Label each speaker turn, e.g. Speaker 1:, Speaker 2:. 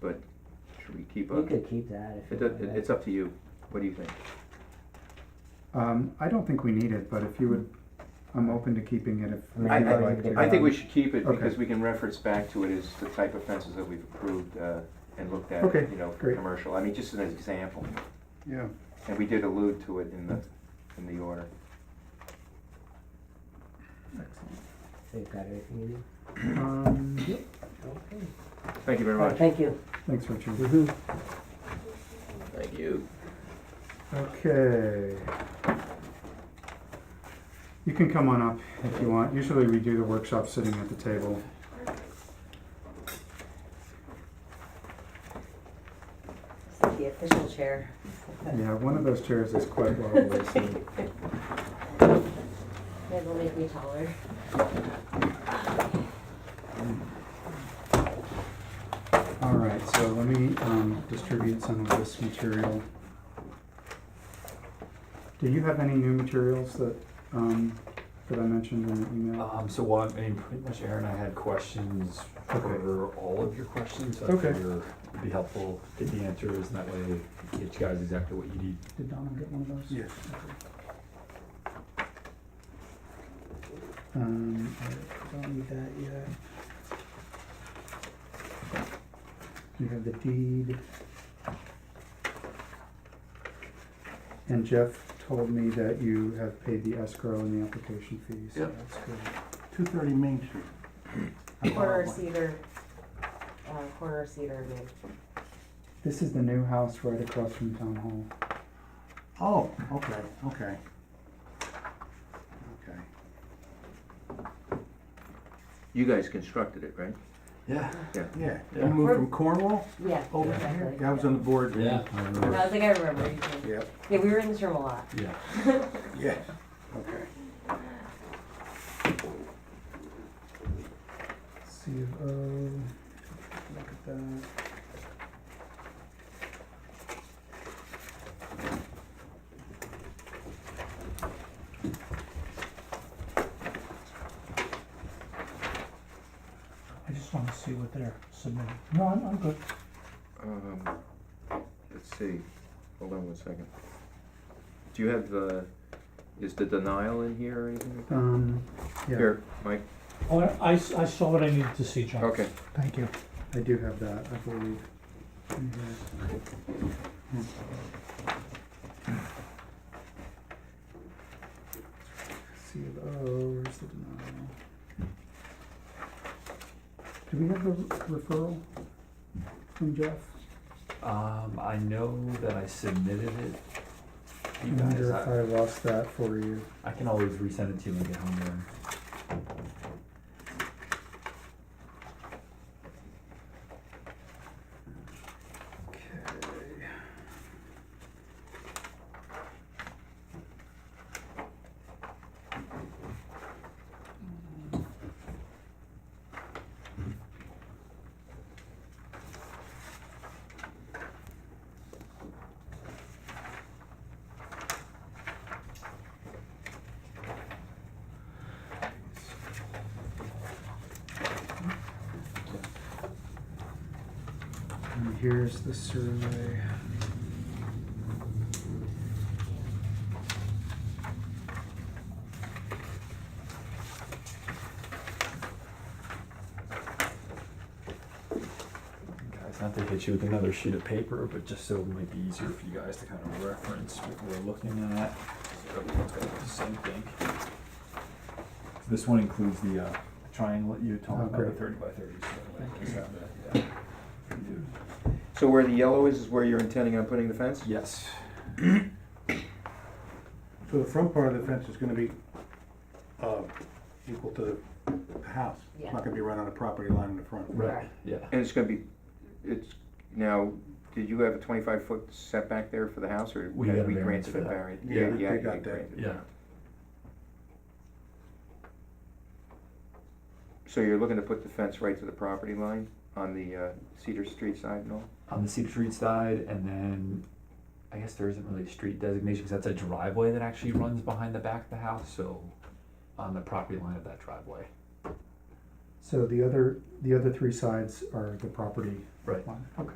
Speaker 1: but should we keep a?
Speaker 2: You could keep that if
Speaker 1: It,
Speaker 2: you
Speaker 1: does-
Speaker 2: want.
Speaker 1: it- it's up to you. What do you think?
Speaker 3: Um, I don't think we need it, but if you would, I'm open to keeping it
Speaker 2: I
Speaker 3: if
Speaker 2: mean,
Speaker 1: I-
Speaker 3: you'd
Speaker 1: I-
Speaker 3: like to.
Speaker 1: I think we should keep it
Speaker 3: Okay.
Speaker 1: because we can reference back to it as the type of fences that we've approved, uh, and looked at,
Speaker 3: Okay,
Speaker 1: you know, for
Speaker 3: great.
Speaker 1: commercial. I mean, just as an example.
Speaker 3: Yeah,
Speaker 1: And we did allude to it in the, in the order.
Speaker 3: excellent.
Speaker 2: So you've got everything you need?
Speaker 3: Um,
Speaker 2: Okay.
Speaker 1: Thank you very
Speaker 2: Alright,
Speaker 1: much.
Speaker 2: thank you.
Speaker 3: Thanks, Richard.
Speaker 2: Mm-hmm.
Speaker 1: Thank you.
Speaker 3: Okay. You can come on up if you want. Usually we do the workshop sitting at the table.
Speaker 4: It's The official chair.
Speaker 3: Yeah, one of those chairs is quite lovely, so.
Speaker 4: It'll make me taller.
Speaker 3: All right, so let me um, distribute some of this material. Do you have any new materials that, um, that I mentioned in the email?
Speaker 5: Um, so, well, I mean, pretty much Aaron, I had questions for all of your questions. so I
Speaker 3: Okay.
Speaker 5: figure It'd be helpful, get the answers, and that way get you guys exactly what you need.
Speaker 3: Did Donald get one of those? Yes. Um, I don't need that yet. You have the deed. And Jeff told me that you have paid the escrow and the application fees. so
Speaker 6: Yep.
Speaker 3: That's good.
Speaker 6: Two thirty Main Street.
Speaker 4: Corner cedar, uh, corner cedar, I mean.
Speaker 3: This is the new house right across from Town Hall.
Speaker 6: Oh, okay, okay. Okay.
Speaker 1: You guys constructed it, right?
Speaker 6: Yeah,
Speaker 1: Yeah.
Speaker 6: yeah.
Speaker 5: Yeah.
Speaker 6: You moved from Cornwall
Speaker 4: Yeah,
Speaker 6: over to here?
Speaker 4: exactly.
Speaker 6: Yeah, I was on the board.
Speaker 5: Yeah.
Speaker 6: then.
Speaker 5: I don't
Speaker 4: I
Speaker 5: know.
Speaker 4: don't think I remember. you can-
Speaker 6: Yep,
Speaker 4: Yeah, we were in this room a lot.
Speaker 5: Yeah.
Speaker 6: yeah, okay.
Speaker 3: C of O, look at that.
Speaker 7: I just wanna see what they're submitting. No, I'm, I'm good.
Speaker 1: Um, let's see. Hold on one second. Do you have the, is the denial in here or anything?
Speaker 3: Um, yeah,
Speaker 1: Here, Mike.
Speaker 7: Oh, I, I saw what I needed to see, John.
Speaker 1: Okay.
Speaker 7: Thank you.
Speaker 3: I do have that, I believe. in here. C of O, oh, where's the denial? Do we have the referral from Jeff?
Speaker 5: Um, I know that I submitted it.
Speaker 3: I
Speaker 5: You
Speaker 3: wonder
Speaker 5: guys,
Speaker 3: if I
Speaker 5: I,
Speaker 3: lost that for you.
Speaker 5: I can always resend it to you when I get home, Aaron.
Speaker 3: Okay. And here's the survey.
Speaker 5: Guys, not to hit you with another sheet of paper, but just so it might be easier for you guys to kind of reference what we're looking at. So everyone's got the same thing. This one includes the uh, triangle that you
Speaker 3: Oh,
Speaker 5: talked about, the
Speaker 3: great.
Speaker 5: thirty by thirty. so I just have that, yeah. You
Speaker 1: So where the yellow is, is where you're intending on putting the fence?
Speaker 5: do. Yes.
Speaker 6: So the front part of the fence is gonna be, uh, equal to the house. It's
Speaker 4: Yeah.
Speaker 6: not gonna be right on the property line in the front.
Speaker 4: Right.
Speaker 5: Yeah.
Speaker 1: And it's gonna be, it's, now, did you have a twenty-five foot setback there for the house, or?
Speaker 5: We got a
Speaker 1: we
Speaker 5: variance
Speaker 1: granted
Speaker 5: for
Speaker 1: a
Speaker 5: that.
Speaker 1: variance?
Speaker 6: Yeah, they- they
Speaker 1: you
Speaker 6: got that.
Speaker 1: granted.
Speaker 5: Yeah.
Speaker 1: So you're looking to put the fence right to the property line on the uh, Cedar Street side and all?
Speaker 5: On the Cedar Street side, and then I guess there isn't really a street designation because that's a driveway that actually runs behind the back of the house. So on the property line of that driveway.
Speaker 3: So the other, the other three sides are the property
Speaker 5: Right.
Speaker 3: line, okay.